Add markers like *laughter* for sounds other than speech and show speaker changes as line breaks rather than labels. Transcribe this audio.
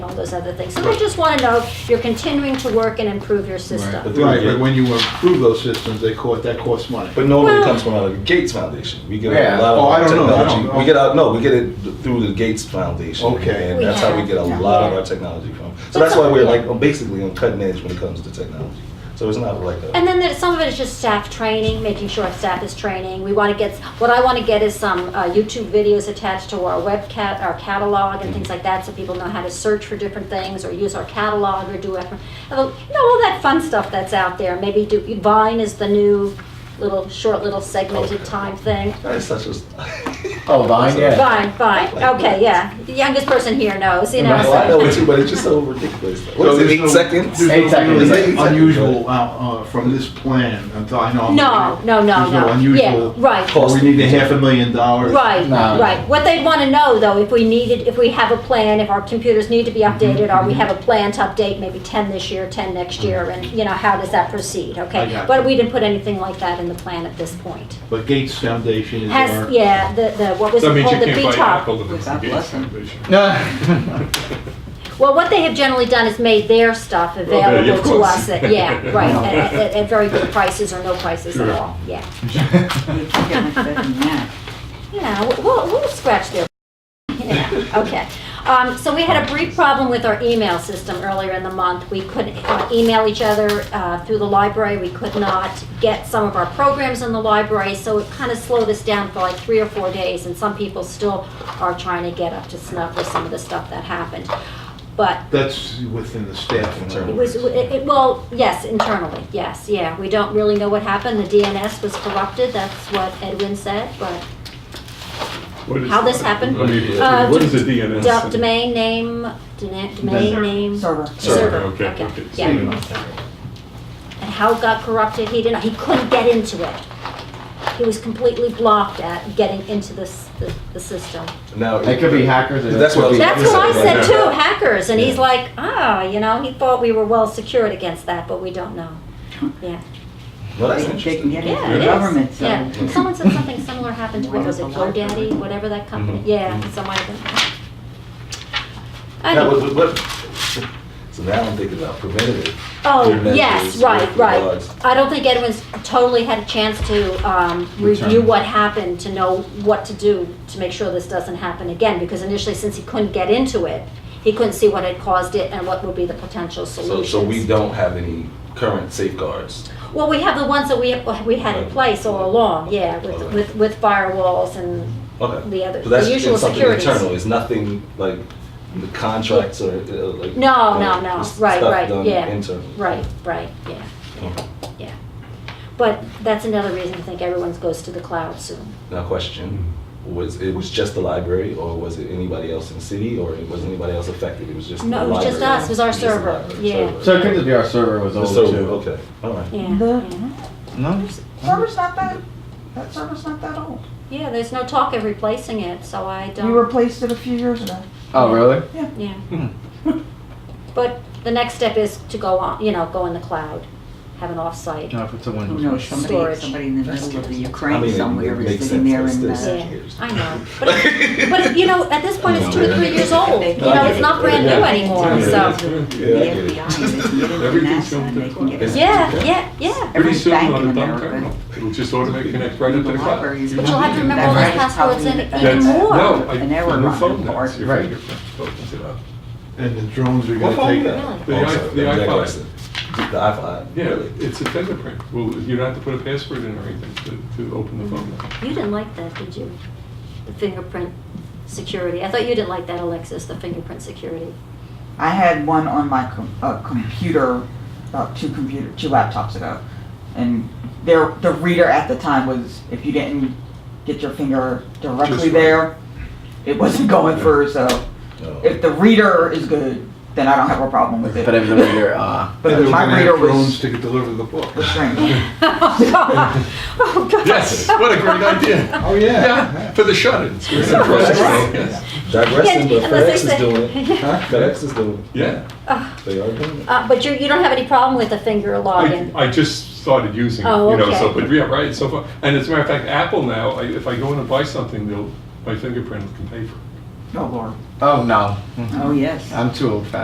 all those other things. So they just want to know if you're continuing to work and improve your
But
system.
then
Right,
again-
but when you improve those systems, they cost, that costs money.
But normally it
Well-
comes from out of the Gates Foundation. We get
Yeah.
a lot of
Oh, I
our
don't know. I
technology.
don't know.
We get out, no, we get it through the Gates Foundation.
Okay.
And
We
that's how we
have,
get a
yeah.
lot of our technology from.
But
So that's why
some-
we're
yeah.
like basically on cutting edge when it comes to technology. So it's not like a.
And then there's, some of it is just staff training, making sure our staff is training. We want to get, what I want to get is some uh, YouTube videos attached to our webcat, our catalog and things like that, so people know how to search for different things or use our catalog or do, eff- you know, all that fun stuff that's out there. Maybe do, Vine is the new little, short little segmented
Okay.
time thing.
That's such a. *laughs*
Oh, Vine, yeah.
Fine, fine, okay, yeah. The youngest person here knows, you know.
Right.
Well, I know it too, but it's just so ridiculous. What
So
is it,
there's
eight
no-
seconds?
there's no
Eight seconds.
really
Eight seconds.
Unusual, uh, uh, from this plan, until I know. I'm
No,
looking
no, no,
at- there's
no. Yeah,
Unusual.
right,
Cost.
We need a half a million dollars.
right,
No.
right. What they'd want to know though, if we needed, if we have a plan, if our computers need to be
Mm-hmm,
updated, or we have a plan to update maybe ten this year, ten next year,
Mm-hmm.
and you know, how does that proceed,
I
okay?
got
But
you.
we didn't put anything like that in the plan at this point.
But Gates Foundation is our.
Has, yeah, the, the, what was
That
it
means you
called, the
can't buy
VTOP?
Apple with
Without
the Gates
blessing.
Foundation.
Well, what they have generally done is made their stuff
yeah, of
available to
course.
us, at-
*laughs*
yeah, right, at, at, at very good prices or no prices at
Sure.
all, yeah.
You can't expect that.
Yeah, we'll- we'll, we'll scratch their. *laughs* Yeah, okay. Um, so we had a brief problem with our email system earlier in the month. We couldn't uh, email each other uh, through the library. We could not get some of our programs in the library, so it kind of slowed us down for like three or four days. And some people still are trying to get up to snuff with some of the stuff that happened. But
That's within the staff. and
it was, it, it- well, yes, internally, yes, yeah. We don't really know what happened. The DNS was corrupted. That's what Edwin said, but
What is-
How this happened?
I mean,
Uh,
What is a
d-
DNS?
Do- Domain name, dena- domain name.
Server.
Server, okay, okay.
Yeah. And how it got corrupted, he didn't, he couldn't get into it. He was completely blocked at getting into this, the, the system.
Now
*laughs* It could be hackers. Or
That's
it could
what I was
be-
That's
what
what I said too,
Yeah.
hackers, and he's
Yeah.
like, ah, you know, he thought we were well secured against that, but we don't know. Yeah,
Well, that's
They can- they can
interesting.
get it
yeah,
from
it
the
is.
government, so.
Yeah, someone said something similar happened to, what was it,
Wonderful life.
GoDaddy, whatever that company,
Mhm.
yeah,
Mhm.
so might have been.
Now,
Anyway.
what- what- So now I'm thinking about preventative.
Oh,
Your
yes,
mentors,
right,
your
right.
regards.
I don't think Edwin's totally had a chance to um, review
Return.
what happened, to know what to do to make sure this doesn't happen again, because initially, since he couldn't get into it, he couldn't see what had caused it and what would be the potential
So, so we
solutions.
don't have any current safeguards.
Well, we have the ones that we, we had in place all along, yeah, with,
Okay.
with with firewalls and
Okay.
The other-
So that's
the usual
it's something
securities.
internal. It's nothing like the contracts or uh, like.
No,
uh,
no, no.
just
Right,
stuff
right,
done
yeah.
Internal.
Right, right, yeah,
Okay.
yeah. But that's another reason I think everyone's goes to the cloud soon.
Now, question: Was it was just the library, or was it anybody else in the city, or it was anybody else affected? It was just
No,
the
it was just
library.
us. It was our
the
server.
library,
Yeah.
server.
So it could just be our server was
The
old
server,
too.
Okay. All right.
Yeah,
The-
yeah.
No.
Server's not that, that server's not that old.
Yeah, there's no talk of replacing it, so I don't.
You replaced it a few years ago.
Oh, really? Hmm.
Yeah. But the next step is to go on, you know, go in the cloud, have an offsite.
No, if it's a
Who
Windows.
knows,
phone.
somebody,
Storage.
somebody in the middle of the
I mean,
Ukraine
it
somewhere
makes
is sitting there
sense,
in
it's
the.
still-
Yeah, I know. But, it- but it- you know, at this point, it's two or three years old. You know, it's not brand new anymore, so.
Yeah, I
The
get it.
FBI, and they
*laughs*
can get it
Everything's
from NASA, and they can get
filmed.
it.
Yeah, yeah, yeah.
Pretty
Every
soon
bank
on
in
a dumb
America.
terminal, it'll just automatically connect right up to the cloud.
But
But you'll have to remember all
That's
those passwords and
probably
even
That's-
more.
No, I,
An error
the new
run
phone
report.
does. Your
Right.
fingerprint opens it up.
And the drones are gonna
What phone
take.
is
that.
that?
The
Oh,
i-
sorry,
the
I'm
iPod.
digressing. The iPod.
Yeah,
Really?
it's a fingerprint. Well, you don't have to put a password in or anything to, to open the phone.
*laughs*
up.
You didn't like that, did you? The fingerprint security. I thought you didn't like that, Alexis, the fingerprint security.
I had one on my com- uh, computer, about two computer, two laptops ago, and their the reader at the time was if you didn't get your finger
Just
directly
right.
there, it wasn't going
Yeah.
through. So
Oh.
if the reader is good, then I don't have a problem with it.
But if the reader, uh,
But
They were
my
gonna have
reader
Drones
was
to deliver the
*laughs*
book.
was strange.
Oh, God. *laughs* Oh, God.
Yes, what a great idea.
*laughs*
Oh, yeah.
Yeah, for the shut-ins.
Right.
Yes.
Digressing,
Yeah,
but FedEx
unless
is
they say-
doing
*laughs*
it. Huh? FedEx is doing it.
Yeah.
They are doing it.
Uh, But you, you don't have any problem with the finger login?
I, I just started using it,
Oh,
you know,
okay.
so, but yeah, right, so far. And as a matter of fact, Apple now, I- if I go in and buy something, they'll, my fingerprint can pay for it.
Oh Lord.
oh no,
Oh yes.
I'm too old fashioned.